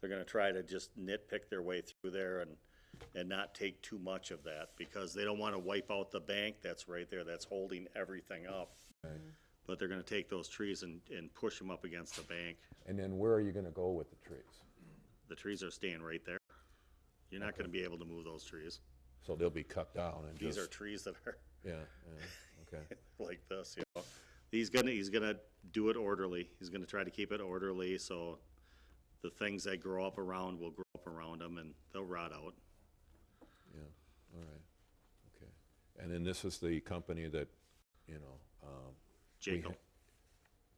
They're gonna try to just nitpick their way through there and, and not take too much of that, because they don't wanna wipe out the bank that's right there, that's holding everything up. But they're gonna take those trees and, and push them up against the bank. And then where are you gonna go with the trees? The trees are staying right there. You're not gonna be able to move those trees. So they'll be cut down and These just, are trees that are yeah, yeah, okay. like this, you know. He's gonna, he's gonna do it orderly. He's gonna try to keep it orderly, so the things that grow up around will grow up around them and they'll rot out. Yeah, all right, okay. And then this is the company that, you know, um, Jacob,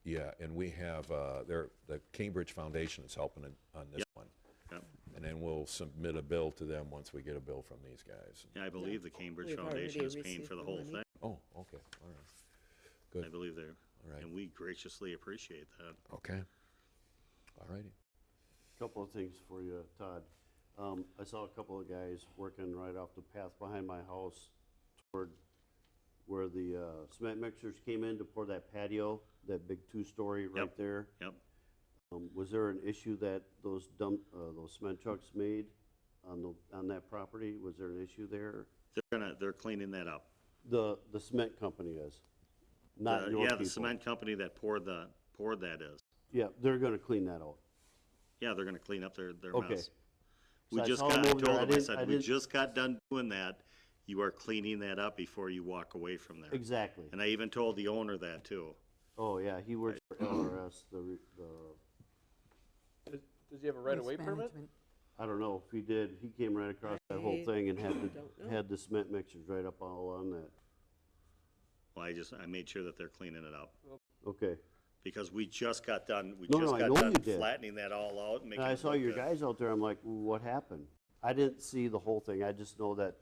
yeah, and we have, uh, there, the Cambridge Foundation is helping in- on this one. Yep. And then we'll submit a bill to them once we get a bill from these guys. yeah, I believe the Cambridge We've Foundation already is paying received for the the whole money. thing. Oh, okay, all right, I believe they're, right. and we graciously appreciate that. okay. All righty, Couple of things for you, Todd. Um, I saw a couple of guys working right off the path behind my house toward where the uh, cement mixers came in to pour that patio, that big two-story right Yep. there. Yep. Um, Was there an issue that those dump, uh, those cement trucks made on the, on that property? Was there an issue there? They're gonna, they're cleaning that up. The, the cement company is, not The- your Yeah, people. the cement company that poured the, poured that is. Yeah, they're gonna clean that out. Yeah, they're gonna clean up their, their Okay. mess. We So I just saw 'em got, I over told there. I them, I didn't- I said, we didn't- just got done doing that. You are cleaning that up before you walk away from there. Exactly. And I even told the owner that too. Oh, yeah, he works for LRS, the, re- the Does does he have a right-of-way Waste permit? management. I don't know if he did, he came right across that whole I thing and had don't the, know. had the cement mixers right up all on that. Well, I just, I made sure that they're cleaning it up. Okay. Because we just got done, we No, no, just I got know done you did. flattening that all out and making. And I it saw look your good. guys out there, I'm like, what happened? I didn't see the whole thing, I just know that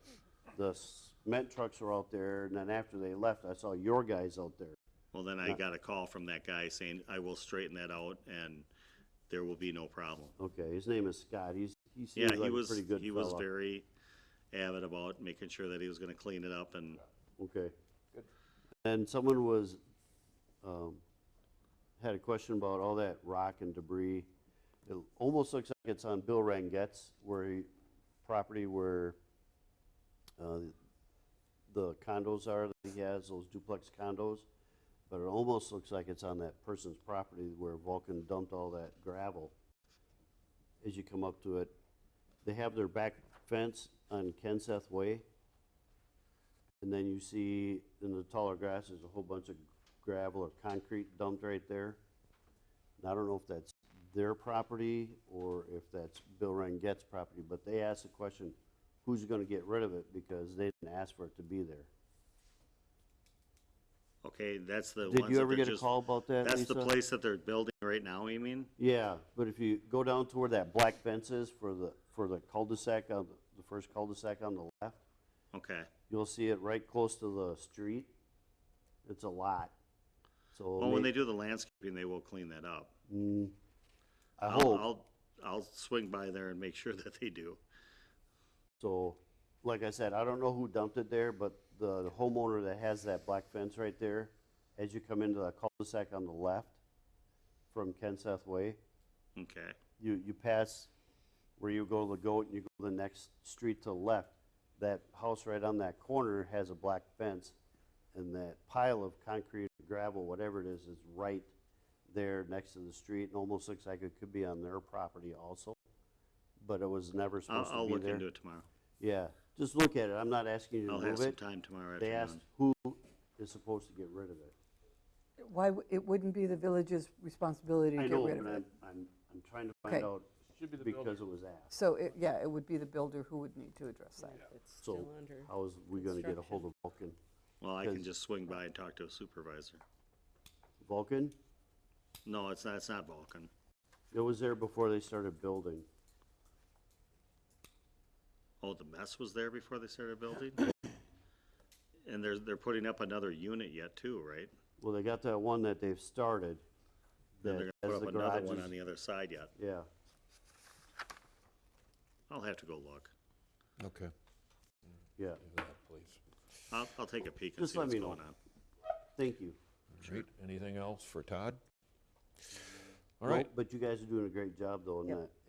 the cement trucks were out there, and then after they left, I saw your guys out there. Well, then I got a call from that guy saying, I will straighten that out and there will be no problem. Okay, his name is Scott, he's, he Yeah, seems he like a was, pretty good he was fella. very avid about making sure that he was gonna clean it up and Okay. And someone was, um, had a question about all that rock and debris. It almost looks like it's on Bill Rangette's where he, property where, uh, the condos are that he has, those duplex condos. But it almost looks like it's on that person's property where Vulcan dumped all that gravel. As you come up to it, they have their back fence on Kenseth Way. And then you see in the taller grass, there's a whole bunch of gravel or concrete dumped right there. And I don't know if that's their property or if that's Bill Rangette's property, but they asked the question, who's gonna get rid of it because they didn't ask for it to be there. Okay, that's the Did ones you that ever they're get a just- call about that, That's the Lisa? place that they're building right now, you mean? Yeah, but if you go down to where that black fence is for the, for the cul-de-sac on, the first cul-de-sac on the left, Okay, you'll see it right close to the street. It's a lot, so. well, when may- they do the landscaping, they will clean that up. Mm, I I'll- hope. I'll, I'll swing by there and make sure that they do. So, like I said, I don't know who dumped it there, but the homeowner that has that black fence right there, as you come into the cul-de-sac on the left from Kenseth Way, Okay, you, you pass where you go to the goat and you go to the next street to the left. That house right on that corner has a black fence and that pile of concrete, gravel, whatever it is, is right there next to the street. It almost looks like it could be on their property also, but it was never supposed I'll, to be I'll there. look into it tomorrow. Yeah, just look at it, I'm not asking you to I'll have move some it. time tomorrow They asked afternoon. who is supposed to get rid of it. Why, w- it wouldn't be the village's responsibility to I get know, rid of but it. I'm, I'm, I'm trying to find Okay. out Should be the builder. because it was asked. So, it- yeah, it would be the builder who would need to address that. It's So still under. how is we gonna get a hold of Vulcan? Well, I can because- just swing by and talk to a supervisor. Vulcan? No, it's not, it's not Vulcan. It was there before they started building. Oh, the mess was there before they started building? And they're, they're putting up another unit yet too, right? Well, they got that one that they've started. Then that they're has gonna put the up another one garages. on the other side yet. Yeah, I'll have to go look. okay, yeah, do that, please. I'll, I'll take a peek and Just see let what's me going on. know. thank you. All right, anything else for Todd? All No, right, But you guys are doing a great job though in Yep. that.